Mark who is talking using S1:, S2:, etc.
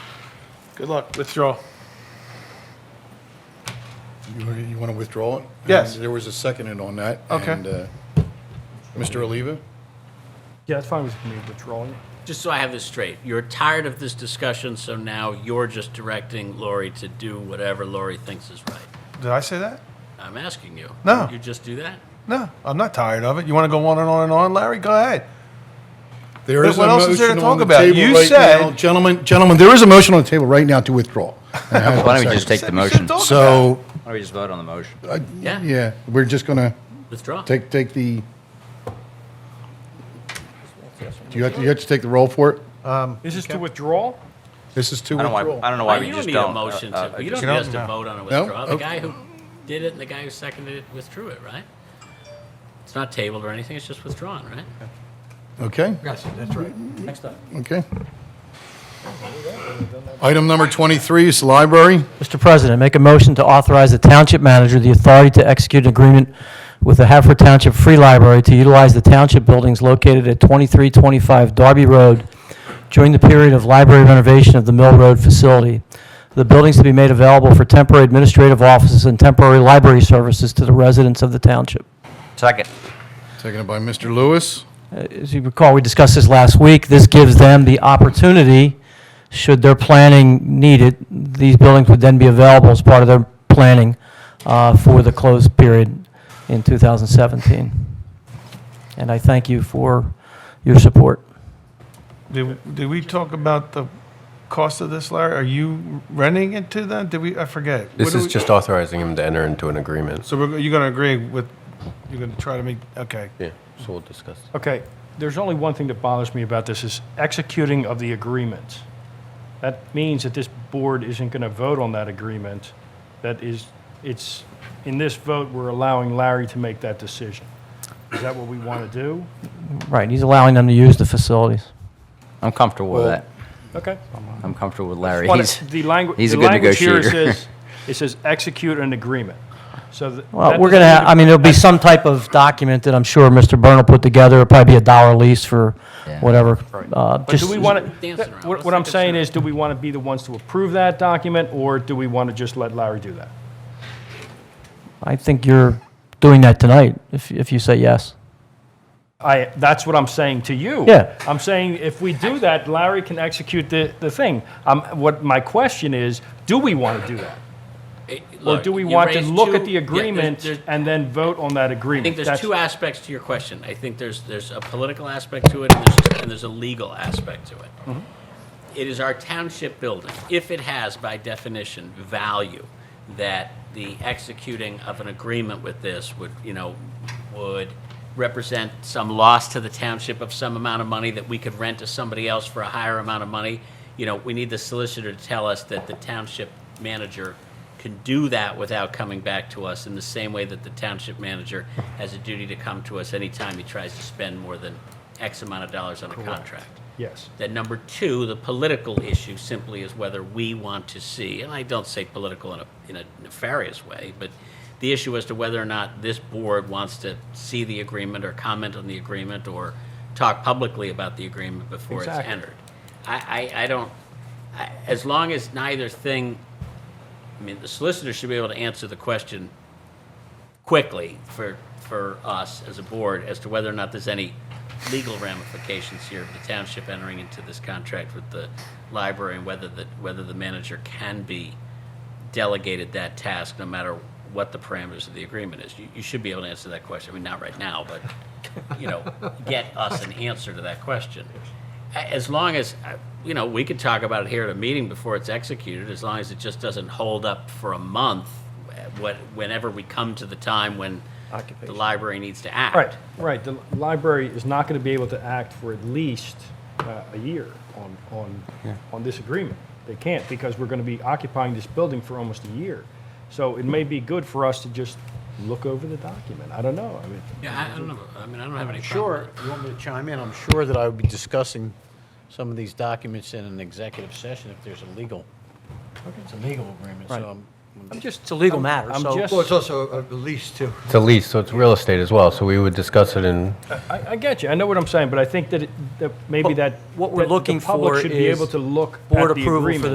S1: Good luck. Withdraw.
S2: You, you want to withdraw it?
S1: Yes.
S2: And There was a second in on that.
S1: Okay.
S2: And, uh, Mr. Oliva?
S3: Yeah, it's fine with me withdrawing.
S4: Just so I have this straight, you're tired of this discussion, so now you're just directing Lori to do whatever Lori thinks is right.
S1: Did I say that?
S4: I'm asking you.
S1: No.
S4: You just do that?
S1: No, I'm not tired of it. You want to go on and on and on, Larry? Go ahead.
S2: There
S1: But
S2: is a
S1: what else is there to
S2: motion on
S1: talk
S2: the
S1: about?
S2: table
S1: You
S2: right now.
S1: said-
S2: Gentlemen, gentlemen, there is a motion on the table right now to withdraw. And I have
S5: Why
S2: a
S5: don't we just
S2: second.
S5: take the
S1: You
S5: motion?
S1: should've talked about
S2: So,
S5: Why don't we just vote on the motion?
S4: Yeah.
S2: yeah, we're just going to
S4: Withdraw.
S2: take, take the, do you have to, you have to take the roll for it?
S3: Is this to withdraw?
S2: This is to
S5: I don't,
S2: withdraw.
S5: know why, I don't know
S4: Well,
S5: why
S4: you
S5: we
S4: don't
S5: just
S4: need
S5: don't.
S4: a motion
S5: Uh,
S4: to,
S5: uh,
S4: you
S5: just-
S4: don't need us to vote on a withdraw. The
S2: Okay.
S4: guy who did it and the guy who seconded it withdrew it, right? It's not tabled or anything, it's just withdrawn, right?
S2: Okay,
S4: Yes, that's right. Next up.
S2: okay. Item number 23 is the library.
S6: Mr. President, make a motion to authorize the township manager the authority to execute an agreement with the Haverford Township Free Library to utilize the township buildings located at 2325 Darby Road during the period of library renovation of the Mill Road facility. The buildings to be made available for temporary administrative offices and temporary library services to the residents of the township.
S5: Second.
S2: Seconded by Mr. Lewis.
S6: As you recall, we discussed this last week. This gives them the opportunity, should their planning need it, these buildings would then be available as part of their planning uh, for the closed period in 2017. And I thank you for your support.
S1: Did, did we talk about the cost of this, Larry? Are you renting it to them? Did we? I forget. What
S7: This
S1: do
S7: is
S1: we-
S7: just authorizing him to enter into an agreement.
S1: So we're, you're going to agree with? You're going to try to make? Okay.
S7: Yeah, so we'll discuss.
S3: Okay, there's only one thing that bothers me about this is executing of the agreement. That means that this board isn't going to vote on that agreement. That is, it's, in this vote, we're allowing Larry to make that decision. Is that what we want to do?
S6: Right, he's allowing them to use the facilities.
S5: I'm comfortable with that.
S3: Okay.
S5: I'm comfortable with Larry.
S3: Well,
S5: He's,
S3: The language,
S5: he's a
S3: the
S5: good
S3: language here
S5: negotiator.
S3: says, it says execute an agreement. So. th-
S6: Well,
S3: that
S6: we're
S3: doesn't
S6: going
S3: need
S6: to,
S3: to-
S6: I mean, there'll be some type of document that I'm sure Mr. Byrne will put together. It'll probably be a dollar lease for
S5: Yeah.
S6: whatever. uh,
S3: But do
S6: just-
S3: we want to,
S4: Dancing around.
S3: what
S4: Let's
S3: what I'm
S4: make it
S3: saying
S4: sure.
S3: is, do we want to be the ones to approve that document, or do we want to just let Larry do that?
S6: I think you're doing that tonight, if if you say yes.
S3: I, that's what I'm saying to you.
S6: Yeah.
S3: I'm saying if we do that, Larry can execute the, the thing. Um, what my question is, do we want to do that? Or do we want to look at the agreement and then vote on that
S4: I
S3: agreement?
S4: think there's
S3: That's-
S4: two aspects to your question. I think there's, there's a political aspect to it, and there's, and there's a legal aspect to it. It is our township building, if it has by definition value, that the executing of an agreement with this would, you know, would represent some loss to the township of some amount of money that we could rent to somebody else for a higher amount of money. You know, we need the solicitor to tell us that the township manager can do that without coming back to us in the same way that the township manager has a duty to come to us anytime he tries to spend more than X amount of dollars on a contract.
S3: Yes.
S4: Then number two, the political issue simply is whether we want to see, and I don't say political in a, in a nefarious way, but the issue as to whether or not this board wants to see the agreement or comment on the agreement or talk publicly about the agreement before it's
S3: Exactly.
S4: entered. I, I, I don't, I, as long as neither thing, I mean, the solicitor should be able to answer the question quickly for, for us as a board as to whether or not there's any legal ramifications here of the township entering into this contract with the library and whether the, whether the manager can be delegated that task, no matter what the parameters of the agreement is. You, you should be able to answer that question. I mean, not right now, but, you know, get us an answer to that question. A- As long as, uh, you know, we could talk about it here at a meeting before it's executed, as long as it just doesn't hold up for a month, uh, what, whenever we come to the time when the
S3: Occupation.
S4: library needs to act.
S3: Right, right. The library is not going to be able to act for at least uh, a year on, on, on this agreement. They can't because we're going to be occupying this building for almost a year. So it may be good for us to just look over the document. I don't know. I mean,
S4: Yeah, I, I don't know, I mean, I don't have any problem.
S8: Sure, you want me to chime in? I'm sure that I would be discussing some of these documents in an executive session if there's a legal, it's a legal agreement, so I'm.
S3: I'm just.
S6: It's a legal matter,
S3: I'm
S6: so-
S3: just-
S8: also a lease too.
S7: It's a lease, so it's real estate as well, so we would discuss it in,
S3: I, I get you. I know what I'm saying, but I think that, it, that maybe
S6: But
S3: that
S6: what we're
S3: that the
S6: looking
S3: public
S6: for
S3: should be
S6: is
S3: able to look
S6: board
S3: at the
S6: approval for
S3: agreement.